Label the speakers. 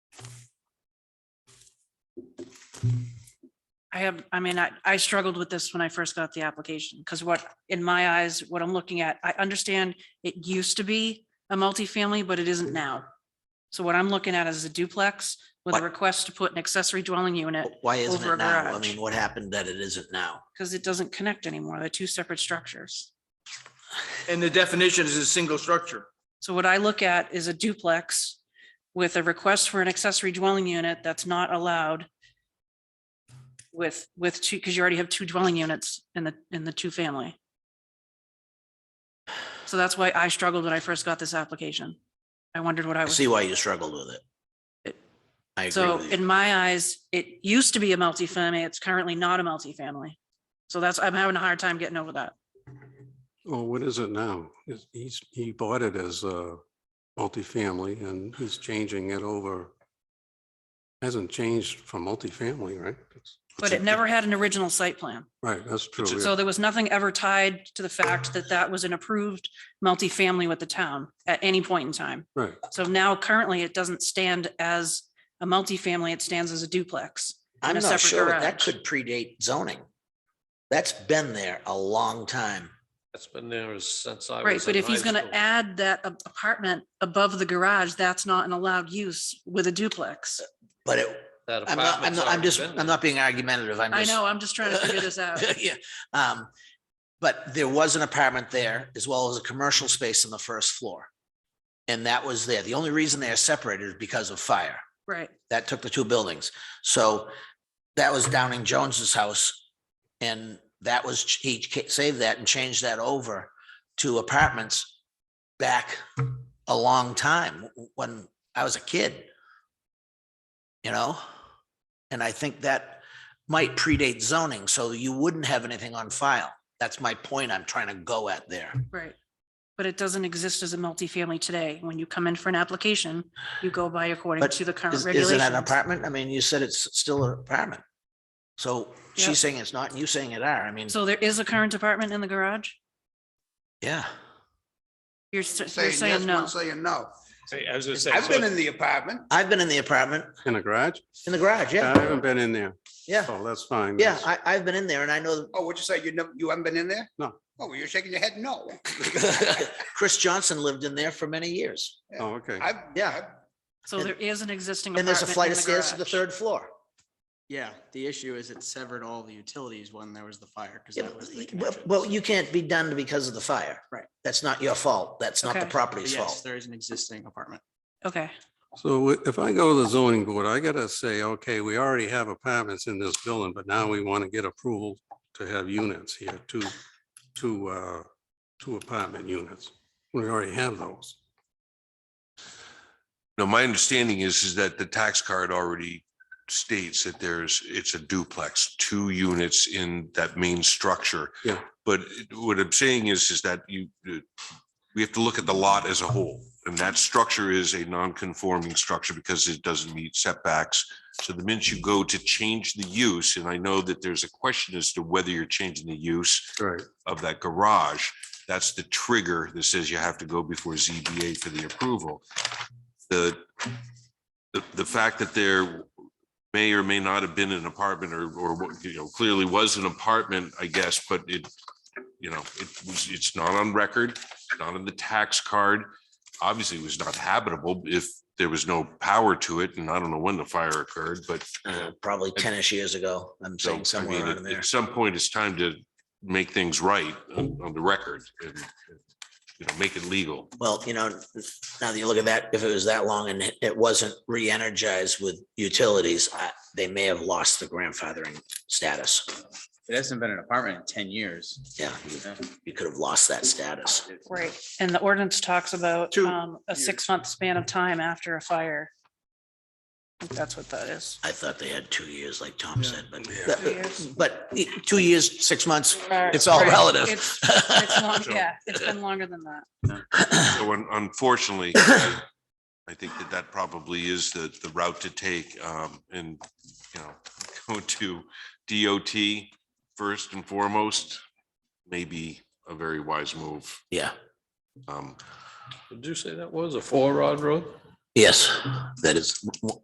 Speaker 1: I have, I mean, I, I struggled with this when I first got the application, because what, in my eyes, what I'm looking at, I understand it used to be a multifamily, but it isn't now. So what I'm looking at is a duplex with a
Speaker 2: What?
Speaker 1: request to put an accessory dwelling unit,
Speaker 2: Why isn't
Speaker 1: Over a
Speaker 2: it now? I
Speaker 1: garage.
Speaker 2: mean, what happened that it isn't now?
Speaker 1: because it doesn't connect anymore. They're two separate structures.
Speaker 3: And the definition is a single structure.
Speaker 1: So what I look at is a duplex with a request for an accessory dwelling unit that's not allowed with, with two, because you already have two dwelling units in the, in the two family. So that's why I struggled when I first got this application. I wondered what I
Speaker 2: I
Speaker 1: was.
Speaker 2: see why you struggled with it.
Speaker 1: It-
Speaker 2: I agree
Speaker 1: So
Speaker 2: with you.
Speaker 1: in my eyes, it used to be a multifamily. It's currently not a multifamily. So that's, I'm having a hard time getting over that.
Speaker 4: Well, what is it now? Is- He's, he bought it as a multifamily and he's changing it over. Hasn't changed from multifamily, right? It's-
Speaker 1: But it never had an original site plan.
Speaker 4: Right, that's
Speaker 5: Oh,
Speaker 4: true.
Speaker 1: So
Speaker 4: yeah.
Speaker 1: there was nothing ever tied to the fact that that was an approved multifamily with the town at any point in time.
Speaker 4: Right,
Speaker 1: So now currently it doesn't stand as a multifamily, it stands as a duplex.
Speaker 2: I'm
Speaker 1: a
Speaker 2: not
Speaker 1: separate
Speaker 2: sure. That
Speaker 1: garage.
Speaker 2: could predate zoning. That's been there a long time.
Speaker 5: That's been there since I was.
Speaker 1: Right, but
Speaker 5: in
Speaker 1: if he's
Speaker 5: high
Speaker 1: gonna
Speaker 5: school.
Speaker 1: add that a- apartment above the garage, that's not an allowed use with a duplex.
Speaker 2: But it,
Speaker 5: That
Speaker 2: I'm not, I'm
Speaker 5: apartment's
Speaker 2: not, I'm
Speaker 5: already
Speaker 2: just,
Speaker 5: been
Speaker 2: I'm
Speaker 5: there.
Speaker 2: not being argumentative. I'm
Speaker 1: I
Speaker 2: just.
Speaker 1: know, I'm just trying to figure this out.
Speaker 2: Yeah, um, but there was an apartment there as well as a commercial space on the first floor. And that was there. The only reason they are separated is because of fire.
Speaker 1: Right,
Speaker 2: That took the two buildings. So that was Downing Jones's house. And that was, he ca- saved that and changed that over to apartments back a long time when I was a kid. You know? And I think that might predate zoning, so you wouldn't have anything on file. That's my point I'm trying to go at there.
Speaker 1: right. But it doesn't exist as a multifamily today. When you come in for an application, you go by according
Speaker 2: But
Speaker 1: to the current
Speaker 2: Is is it an
Speaker 1: regulations.
Speaker 2: apartment? I mean, you said it's still an apartment. So
Speaker 1: Yeah.
Speaker 2: she's saying it's not, and you saying it are. I mean,
Speaker 1: So there is a current apartment in the garage?
Speaker 2: yeah.
Speaker 1: You're, s- you're
Speaker 6: saying yes,
Speaker 1: saying no.
Speaker 6: one saying no.
Speaker 7: Hey, I was gonna say,
Speaker 6: I've been
Speaker 7: so
Speaker 6: in the apartment.
Speaker 2: I've been in the apartment,
Speaker 4: in a garage?
Speaker 2: in the garage,
Speaker 4: I
Speaker 2: yeah,
Speaker 4: haven't been in there.
Speaker 2: yeah,
Speaker 4: Oh, that's fine.
Speaker 2: yeah.
Speaker 4: that's-
Speaker 2: I, I've been in there and I know
Speaker 6: Oh, would you say you never, you haven't been in there?
Speaker 4: No.
Speaker 6: Oh, well, you're shaking your head no.
Speaker 2: Chris Johnson lived in there for many years.
Speaker 4: Oh, okay.
Speaker 6: I've,
Speaker 2: Yeah.
Speaker 6: yeah,
Speaker 1: So there is an existing.
Speaker 2: And there's a
Speaker 1: apartment
Speaker 2: flight
Speaker 1: in
Speaker 2: of
Speaker 1: the
Speaker 2: stairs to the
Speaker 1: garage.
Speaker 2: third floor.
Speaker 8: Yeah, the issue is it severed all the utilities when there was the fire, because
Speaker 2: Yeah,
Speaker 8: that was the
Speaker 2: Well,
Speaker 8: connection.
Speaker 2: well, you can't be done because of the fire.
Speaker 8: Right.
Speaker 2: That's not your fault. That's not the
Speaker 1: Okay.
Speaker 8: But
Speaker 2: property's
Speaker 8: Yes,
Speaker 2: fault.
Speaker 8: there is an existing apartment.
Speaker 1: Okay,
Speaker 4: So wh- if I go to the zoning board, I gotta say, okay, we already have apartments in this building, but now we want to get approval to have units here, two, two, uh, two apartment units. We already have those.
Speaker 9: No, my understanding is, is that the tax card already states that there's, it's a duplex, two units in that main structure.
Speaker 4: Yeah.
Speaker 9: But what I'm saying is, is that you, uh, we have to look at the lot as a whole. And that structure is a non-conforming structure because it doesn't meet setbacks. So the minute you go to change the use, and I know that there's a question as to whether you're changing the use
Speaker 4: Right.
Speaker 9: of that garage, that's the trigger that says you have to go before ZBA for the approval. The, the, the fact that there may or may not have been an apartment or, or, what, you know, clearly was an apartment, I guess, but it, you know, it was, it's not on record, not in the tax card. Obviously, it was not habitable if there was no power to it, and I don't know when the fire occurred, but
Speaker 2: Uh, Probably ten-ish years ago, I'm
Speaker 9: so,
Speaker 2: saying
Speaker 9: I
Speaker 2: somewhere
Speaker 9: mean,
Speaker 2: around
Speaker 9: at-
Speaker 2: there.
Speaker 9: at some point, it's time to make things right on, on the record and, you know, make it legal.
Speaker 2: Well, you know, now that you look at that, if it was that long and it- it wasn't re-energized with utilities, I- they may have lost the grandfathering status.
Speaker 8: It hasn't been an apartment in ten years.
Speaker 2: Yeah, you- you could have lost that status.
Speaker 1: right. And the ordinance talks about
Speaker 6: Two
Speaker 1: um, a
Speaker 6: years.
Speaker 1: six-month span of time after a fire. I think That's what that is.
Speaker 2: I thought they had two years, like Tom said, but,
Speaker 1: Two years.
Speaker 2: but e, two years, six months, it's all relative.
Speaker 1: It's- it's long- Yeah, it's been longer than that.
Speaker 9: So un- unfortunately, I I think that that probably is the, the route to take, um, and, you know, go to DOT first and foremost, may be a very wise move.
Speaker 2: Yeah,
Speaker 9: Um,
Speaker 5: Did you say that was a four rod road?
Speaker 2: yes, that is